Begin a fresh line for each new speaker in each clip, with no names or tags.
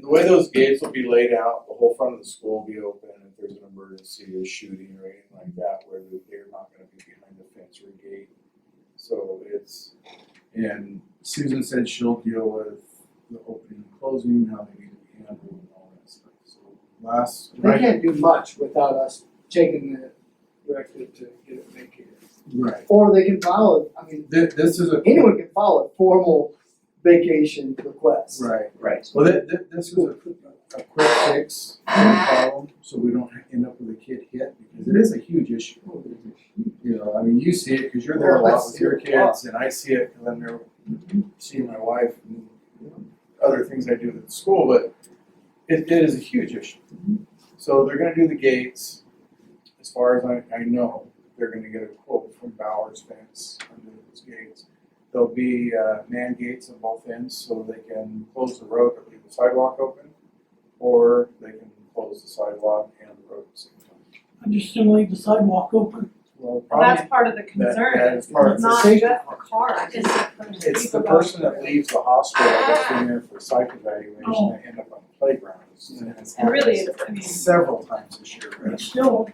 the way those gates will be laid out, the whole front of the school will be open if there's an emergency or shooting or anything like that, where they- they're not gonna be behind the fence or gate. So it's, and Susan said she'll deal with the opening and closing, how they need to be handled and all that stuff, so last,
They
right,
can't do much without us taking the directive to get it vacated.
right.
Or they can file, it. I mean,
This, this is a.
anyone can file a formal vacation request.
Right.
Right.
Well, thi- thi- this was a, quick- a quick fix problem, so we don't end up with a kid hit, because it is Oh, a huge issue. You know, I mean, you see it, cause you're there a lot with your kids, and I see it, cause I'm there seeing my wife and other things I do at school, but it, it is a huge issue. So they're gonna do the gates, as far as I, I know, they're gonna get a quote from Bowers Fence under those gates. There'll be uh, man gates on both ends so they can close the road but leave the sidewalk open, or they can close the sidewalk and the road at the same time.
I'm just gonna leave the sidewalk open.
Well,
Well,
probably
that's part of the
that,
concern,
that
it's
is part of the
not
safety.
just the car, it's the person.
It's the person that leaves the hospital that's been there for psych evaluation
Oh.
that end up on the playground. It's- it's
And really,
happened
it's, I mean,
Several times this year,
But
right?
still,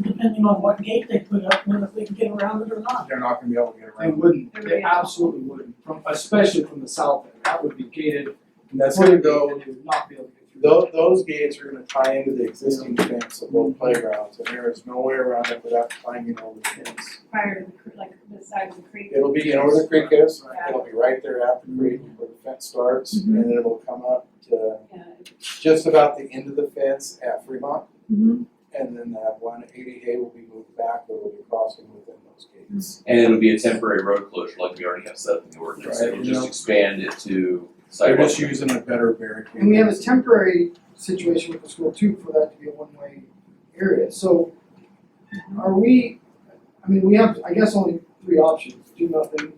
depending on what gate they put up, and if we can get around it or not.
They're not gonna be able to get
They
around.
wouldn't,
There we
they
go.
absolutely wouldn't, from, especially from the south end, that would be gated.
And that's gonna go
They would not be able to get through.
Those, those gates are gonna tie into the existing fence of both playgrounds, and there is no way around it without climbing over the fence.
prior to the, cre- like, the side of the creek.
It'll be, you know where the creek is, it'll be right there at the creek where the fence starts,
Mm-hmm.
and then it'll come up to
Yeah.
just about the end of the fence at Fremont.
Mm-hmm.
Mhm.
And then that one eighty A will be moved back, but it'll be crossing within those gates.
And it'll be a temporary road closure like we already have set up in the ordinance,
Right,
it'll
you know.
just expand it to
They're
sidewalks.
just using a better barricade.
Mm-hmm. And we have a temporary situation with the school too, for that to be a one-way area, so are we, I mean, we have, I guess, only three options, do nothing,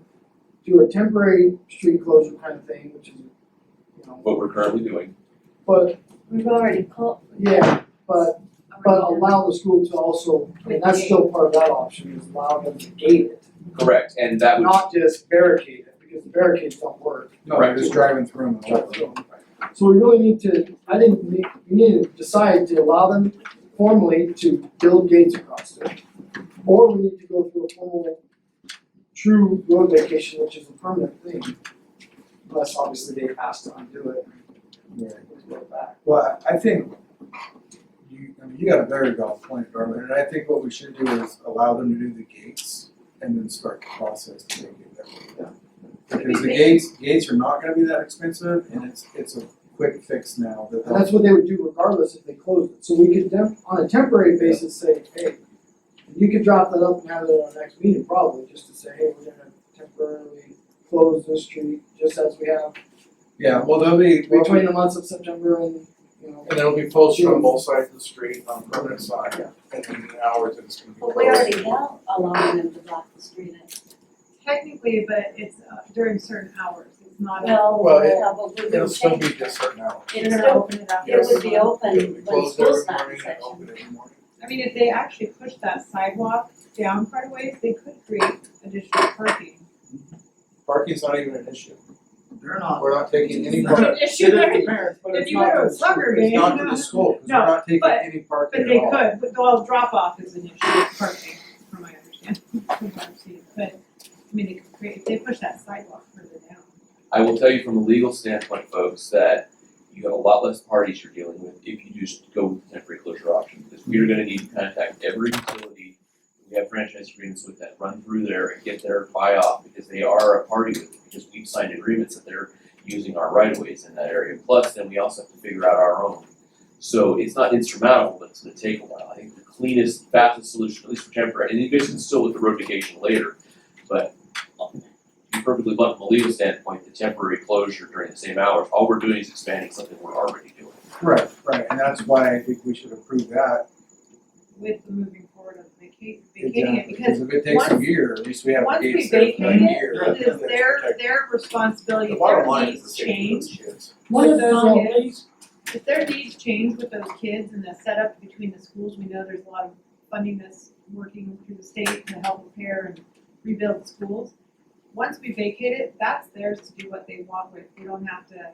do a temporary street closure kind of thing, which is, you know,
What we're currently doing,
but,
We've already called.
yeah, but, but allow the school to also, I mean, that's still part of that option, is allow them to gate it,
correct, and that would,
not just barricade it, because barricades don't work.
No, they're just driving through them.
Driving through So we really need to, I think we we need to decide to allow them formally to build gates across it. Or we need to go through a formal true road vacation, which is a permanent thing. Unless obviously they asked to undo it
Yeah.
and go back.
Well, I I think you, I mean, you got a very valid point, Darwin, and I think what we should do is allow them to do the gates and then start the process to make it better. Because the gates, gates are not gonna be that expensive and it's, it's a quick fix now that
And that's what they would do regardless if they closed it. So we could dem- on a temporary basis say, hey, you could drop that up and have it at our next meeting probably, just to say, hey, we're gonna temporarily close this street just as we have
Yeah, well, they'll be, they'll be-
between the months of September and, you know.
and it'll be posted on both sides of the street on the permanent side, and then the hours that it's gonna be
But
closed.
we already have allowing them to block the street.
Technically, but it's uh, during certain hours, it's not.
Well,
Well, it-
yeah, but we
It'll
would
still
change.
be just certain hours.
It's still open it up.
It would be open
We
when
close
school's
every morning
not in
and
session.
open every morning.
I mean, if they actually push that sidewalk down quite a ways, they could create additional parking.
Parking's not even an issue.
They're not.
We're not taking any
It's
part.
an issue there,
parents,
if you go to a soccer game,
It's not to the school, because we're
No,
not taking
but-
any
but
parking
they
at all.
could, but well, drop off is an issue with parking, from my understanding, from what I've seen. But, I mean, they could create, if they push that sidewalk further down.
I will tell you from a legal standpoint, folks, that you have a lot less parties you're dealing with if you just go with the temporary closure option, because we are gonna need to contact every utility. We have franchise agreements with that, run through there and get their buy-off, because they are a party with it, because we've signed agreements that they're using our right-of-ways in that area, plus then we also have to figure out our own. So it's not insurmountable, but it's gonna take a while, I think the cleanest, fastest solution, at least for temporary, and you guys can still with the road vacation later, but um, to be perfectly blunt, from a legal standpoint, the temporary closure during the same hours, all we're doing is expanding something we're already doing.
Right, right, and that's why I think we should approve that.
with the moving forward of vacating, vacating it,
Exactly,
because
if it takes a
once-
year, at least we have
once
the
we
gates there
vacate
for another year.
it, it is their, their responsibility,
The
if their
bottom line is the
needs
safety of those
change,
kids.
One of those
Song
all
is-
days,
if their needs change with those kids and the setup between the schools, we know there's a lot of funding that's working through the state to help repair and rebuild schools. Once we vacate it, that's theirs to do what they want with, we don't have to